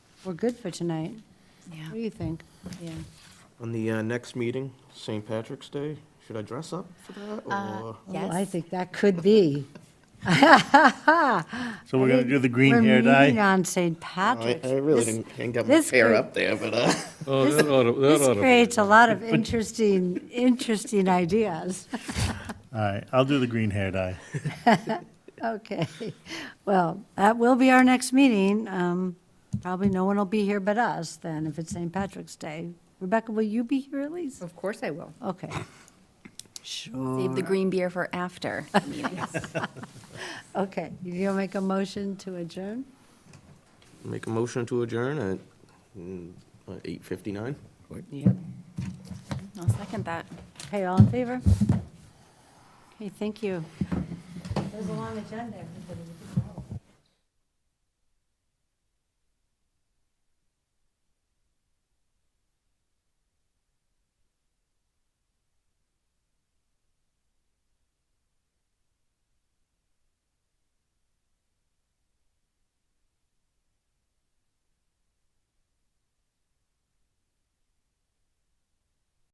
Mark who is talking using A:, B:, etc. A: we're good for tonight. What do
B: Yeah.
A: you think? Yeah.
C: On the uh, next meeting, St. Patrick's Day, should I dress up for that, or?
A: Well, Oh, I
B: Uh, Yes.
A: think that could be.
D: So we're gonna do the green hair
A: We're meeting
D: dye? Oh,
A: on St.
C: I
A: Patrick's.
C: I really
A: This-
C: didn't didn't get my
A: this
C: hair
A: group-
C: up there, but, uh,
E: Oh, that oughta- that
A: This
E: oughta be-
A: creates a lot of interesting, interesting ideas.
D: All right, I'll do the green hair dye.
A: Okay, well, that will be our next meeting. Um, Probably no one will be here but us then, if it's St. Patrick's Day. Rebecca, will you be here at least?
F: Of course I will.
A: Okay. Sure.
B: Save the green beer for after meetings.
A: Okay, you'll make a motion to adjourn?
C: make a motion to adjourn at mm, uh, 8:59?
A: Yep.
B: I'll second that.
A: Okay, all in favor? Okay, thank you. There's a long agenda, everybody.